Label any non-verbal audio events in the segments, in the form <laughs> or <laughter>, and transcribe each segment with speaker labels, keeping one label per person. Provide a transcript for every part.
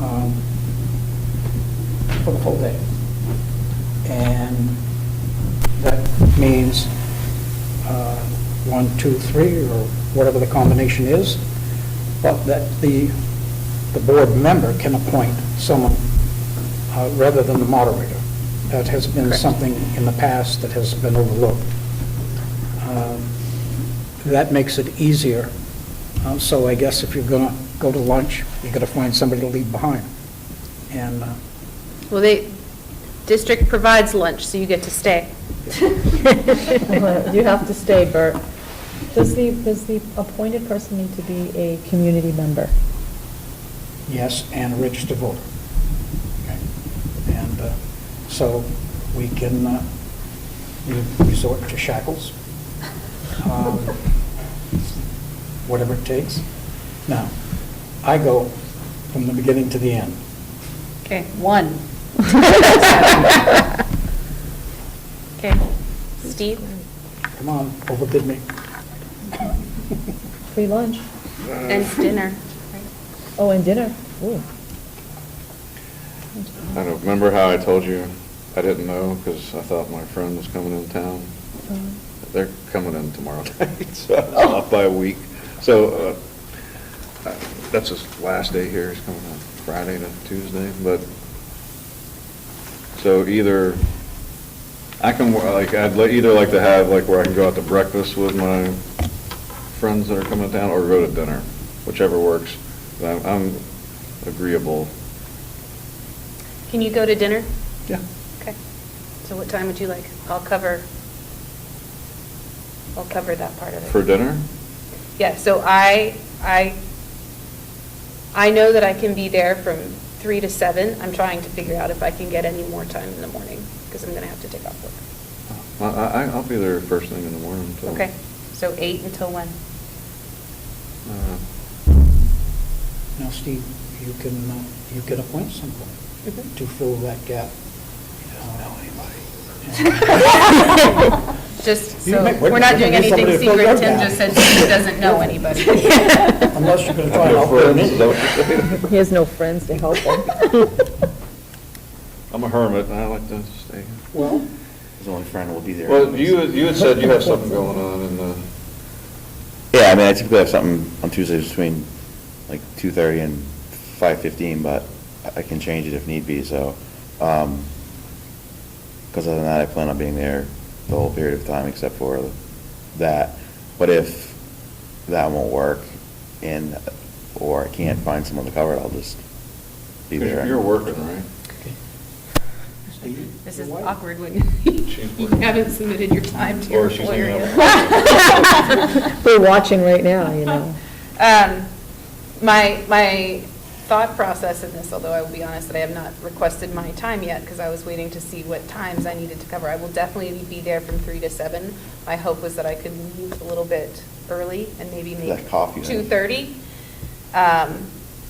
Speaker 1: um, for the full day. And that means uh, one, two, three, or whatever the combination is, but that the, the board member can appoint someone uh, rather than the moderator. That has been
Speaker 2: Correct.
Speaker 1: something in the past that has been overlooked. Um, That makes it easier. Uh, So I guess if you're going to go to lunch, you're going to find somebody to leave behind. And uh,
Speaker 2: Well, they, district provides lunch, so you get to stay.
Speaker 3: <laughs> You have to stay, Bert. Does the, does the appointed person need to be a community member?
Speaker 1: yes, and a registered voter. Okay. And uh, so we can uh, re- resort to shackles, um, whatever it takes. Now, I go from the beginning to the end.
Speaker 2: Okay, one. Okay, Steve?
Speaker 1: Come on, overbid me.
Speaker 3: Free lunch?
Speaker 2: And dinner.
Speaker 3: Oh, and dinner? Ooh. <laughs>
Speaker 4: I don't remember how I told you I didn't know because I thought my friend was coming in town.
Speaker 3: Um,
Speaker 4: They're coming in tomorrow <laughs> night, so I was off by a week. So uh, that's his last day here. He's coming on Friday to Tuesday, but, so either, I can, like, I'd li- either like to have, like, where I can go out to breakfast with my friends that are coming to town or go to dinner, whichever works. But I'm- I'm agreeable.
Speaker 2: Can you go to dinner?
Speaker 4: Yeah.
Speaker 2: Okay. So what time would you like? I'll cover, I'll cover that part of it.
Speaker 4: For dinner?
Speaker 2: Yeah, so I, I, I know that I can be there from three to seven. I'm trying to figure out if I can get any more time in the morning, because I'm going to have to take off work.
Speaker 1: Oh.
Speaker 4: I, I, I'll be there first thing in the morning, so.
Speaker 2: Okay, so eight until
Speaker 3: <laughs>
Speaker 2: when?
Speaker 4: Uh,
Speaker 1: Now, Steve, you can, uh, you can appoint someone
Speaker 2: Mhm.
Speaker 1: to fill that gap. I don't know
Speaker 2: <laughs> Just,
Speaker 1: You
Speaker 2: so,
Speaker 1: may-
Speaker 2: we're not doing
Speaker 1: wait, wait,
Speaker 2: anything
Speaker 1: somebody fill
Speaker 2: secret,
Speaker 1: your
Speaker 2: Tim
Speaker 1: gap.
Speaker 2: just said he
Speaker 1: <laughs>
Speaker 2: doesn't know anybody.
Speaker 1: Unless you're going to try
Speaker 4: I'm
Speaker 1: and
Speaker 4: your
Speaker 1: outbid
Speaker 4: friend,
Speaker 1: me.
Speaker 4: is that what you're saying?
Speaker 3: He has no friends to
Speaker 2: <laughs>
Speaker 3: help him.
Speaker 4: I'm a hermit, and I like to stay.
Speaker 1: Well,
Speaker 5: His only friend will be there.
Speaker 4: Well, you, you had said you have something going on in the,
Speaker 5: Yeah, I mean, I typically have something on Tuesdays between like 2:30 and 5:15, but I- I can change it if need be, so. Because other than that, I plan on being there the whole period of time except for that. But if that won't work and, or I can't find someone to cover it, I'll just be there.
Speaker 4: you're working, right?
Speaker 1: Steve?
Speaker 2: This is awkward
Speaker 4: <laughs>
Speaker 2: when you haven't submitted your time to your
Speaker 4: Or she's
Speaker 2: employer
Speaker 4: hanging
Speaker 2: yet.
Speaker 3: <laughs> We're watching right now, you know.
Speaker 2: <laughs> Um, My, my thought process in this, although I will be honest that I have not requested my time yet, because I was waiting to see what times I needed to cover. I will definitely be there from three to seven. My hope was that I could leave a little bit early and maybe make.
Speaker 5: That coffee thing.
Speaker 2: 2:30, um,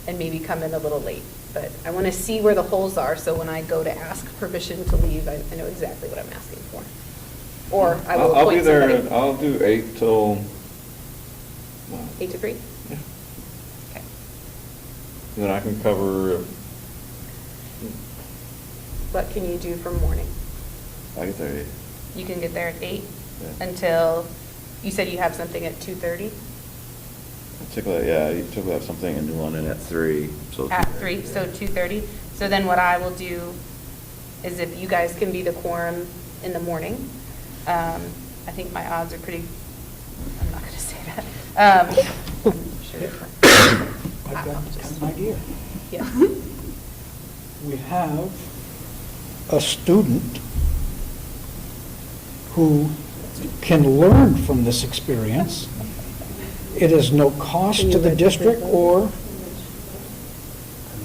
Speaker 2: and maybe come in a little late. But I want to see where the holes are, so when I go to ask permission to leave, I I know exactly what I'm asking for. Or I will
Speaker 4: I'll be
Speaker 2: appoint
Speaker 4: there,
Speaker 2: somebody.
Speaker 4: at- I'll do eight till, well,
Speaker 2: Eight to three?
Speaker 4: yeah.
Speaker 2: Okay.
Speaker 4: then I can cover, uh,
Speaker 2: What can you do for morning?
Speaker 5: I get there.
Speaker 2: You can get there at eight
Speaker 5: Yeah.
Speaker 2: until, you said you have something at two thirty?
Speaker 5: Typically, yeah, I typically have something in New London at 3, so.
Speaker 2: At three, so two thirty. So then what I will do is if you guys can be the quorum in the morning, um, I think my odds are pretty, I'm not gonna <laughs> say that. Um, sure.
Speaker 1: I've got an idea.
Speaker 2: Yeah.
Speaker 1: We have a student who can learn from this experience. It is no cost to the district or,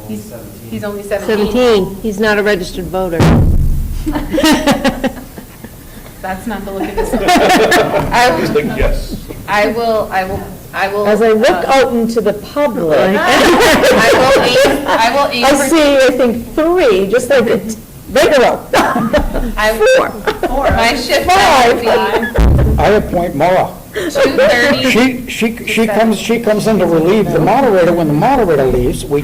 Speaker 2: He's he's only seventeen.
Speaker 6: 17, he's not a registered voter.
Speaker 2: <laughs> That's not the look <laughs> of this. <laughs>
Speaker 4: <laughs>
Speaker 2: I-
Speaker 4: He's like, yes.
Speaker 2: I will, I will, I will.
Speaker 3: As I look
Speaker 2: um,
Speaker 3: out into the public.
Speaker 2: <laughs> I will aim- I will aim
Speaker 3: <laughs> I
Speaker 2: for-
Speaker 3: see, I think, three, just like a t- regular.
Speaker 2: I-
Speaker 3: <laughs> Four.
Speaker 2: Four. My shift time would be
Speaker 1: I appoint Mara.
Speaker 2: 2:30.
Speaker 1: She, she, she comes, she comes in to relieve the moderator. When the moderator leaves, we